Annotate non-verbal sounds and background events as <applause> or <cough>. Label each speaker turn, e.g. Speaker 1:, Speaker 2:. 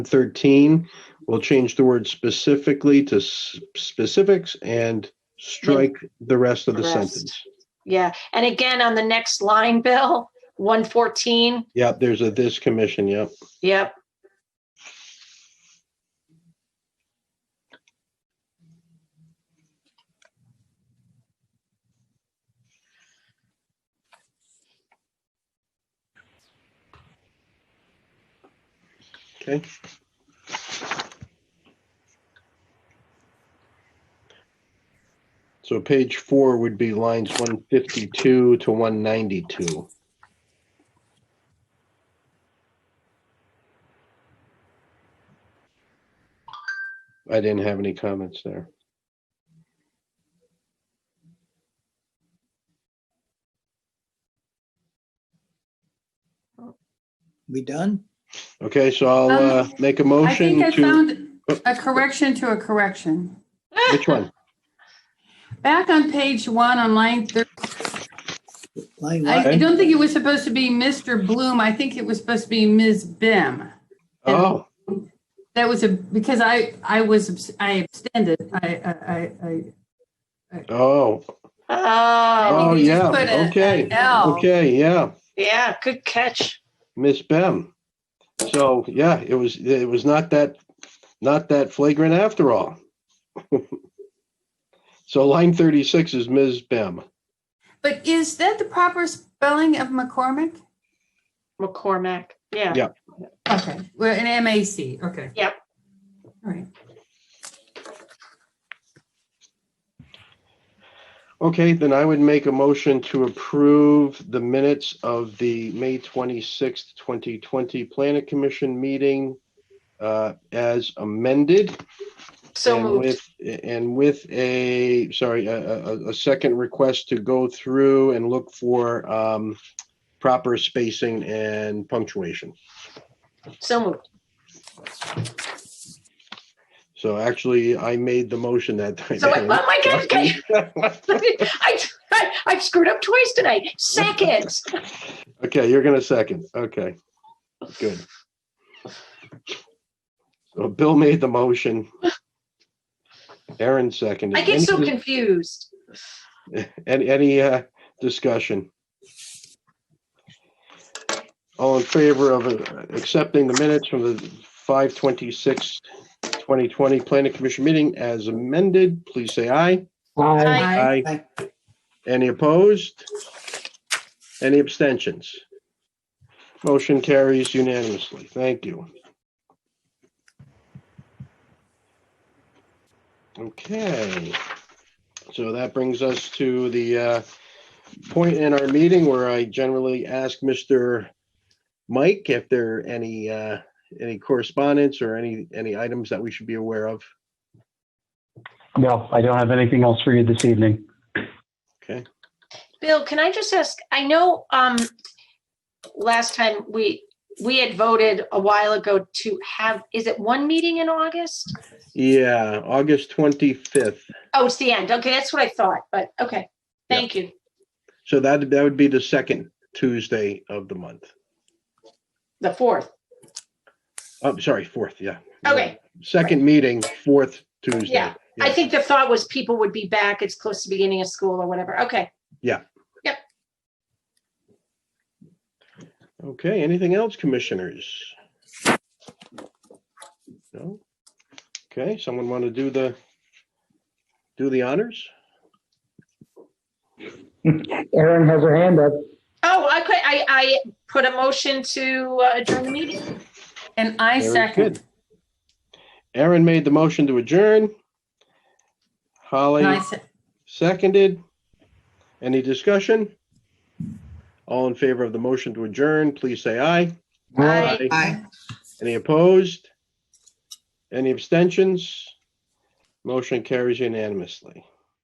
Speaker 1: 13, we'll change the word specifically to s- specifics and strike the rest of the
Speaker 2: Rest.
Speaker 1: sentence.
Speaker 2: Yeah, and again, on the next line, Bill, one fourteen,
Speaker 1: Yep, there's a this commission, yep.
Speaker 2: yep,
Speaker 1: Okay. So page four would be lines 152 to 192. I didn't have any comments there.
Speaker 3: We done?
Speaker 1: Okay, so I'll
Speaker 4: Um,
Speaker 1: uh, make a
Speaker 4: I think
Speaker 1: motion
Speaker 4: I
Speaker 1: to, Oh.
Speaker 4: found a correction to a correction.
Speaker 1: which
Speaker 4: <laughs>
Speaker 1: one?
Speaker 4: Back on page one on line 30,
Speaker 3: Line
Speaker 4: I
Speaker 3: one,
Speaker 4: I don't think it was supposed to be Mr. Bloom. I think it was supposed to be Ms. Bim.
Speaker 1: Oh,
Speaker 4: That was a, because I, I was, abs- I abstended. I, I, I- I.
Speaker 1: oh,
Speaker 2: <laughs> oh,
Speaker 1: oh,
Speaker 4: you just
Speaker 1: yeah,
Speaker 4: put a-
Speaker 1: okay.
Speaker 4: an L.
Speaker 1: Okay, yeah.
Speaker 2: yeah, good catch.
Speaker 1: Miss Bem. So yeah, it was it was not that not that flagrant after all. <laughs> so line thirty six is Ms. Bem.
Speaker 4: But is that the proper spelling of McCormick?
Speaker 2: McCormack, yeah.
Speaker 1: Yeah.
Speaker 4: Okay, well, an M A C, okay.
Speaker 2: Yep.
Speaker 4: All right.
Speaker 1: Okay, then I would make a motion to approve the minutes of the May twenty sixth, twenty twenty Planet Commission meeting uh, as amended
Speaker 2: So
Speaker 1: and
Speaker 2: moved,
Speaker 1: with and with a sorry a, a, a- a second request to go through and look for um, proper spacing and punctuation.
Speaker 2: so moved. <laughs>
Speaker 1: So actually, I made the motion that time.
Speaker 2: So, I-
Speaker 1: <laughs>
Speaker 2: oh my God, okay. I, I, I've screwed up twice tonight.
Speaker 1: <laughs>
Speaker 2: Seconds.
Speaker 1: okay, you're gonna second. Okay, good. So Bill made the motion. Aaron seconded.
Speaker 2: I get so
Speaker 1: Any-
Speaker 2: confused.
Speaker 1: Any, any uh, discussion? All in favor of uh, accepting the minutes from the 5:26, 2020 Planning Commission meeting as amended, please say aye.
Speaker 5: Aye.
Speaker 4: Aye.
Speaker 1: Any opposed? Any abstentions? Motion carries unanimously. Thank you. Okay. So that brings us to the uh, point in our meeting where I generally ask Mr. Mike if there are any, uh, any correspondence or any, any items that we should be aware of.
Speaker 5: No, I don't have anything else for you this evening.
Speaker 1: Okay.
Speaker 2: Bill, can I just ask, I know, um, last time we, we had voted a while ago to have, is it one meeting in August?
Speaker 1: Yeah, August 25th.
Speaker 2: Oh, it's the end. Okay, that's what I thought, but, okay. Thank you.
Speaker 1: So that, that would be the second Tuesday of the month.
Speaker 2: The fourth.
Speaker 1: Oh, sorry, fourth, yeah.
Speaker 2: Okay.
Speaker 1: Second meeting, fourth Tuesday.
Speaker 2: Yeah, I think the thought was people would be back. It's close to beginning of school or whatever. Okay.
Speaker 1: Okay, anything else, commissioners? No? Okay, someone want to do the, do the honors?
Speaker 6: Erin has her hand up.
Speaker 2: Oh, I could, I, I put a motion to uh, adjourn the meeting.
Speaker 4: And I
Speaker 1: Very
Speaker 4: second,
Speaker 1: good. Aaron made the motion to adjourn.
Speaker 4: and
Speaker 1: Holly
Speaker 4: I se-
Speaker 1: seconded. Any discussion? All in favor of the motion to adjourn, please say aye.
Speaker 2: Aye.
Speaker 3: aye.
Speaker 1: Any opposed? Any abstentions? Motion carries unanimously.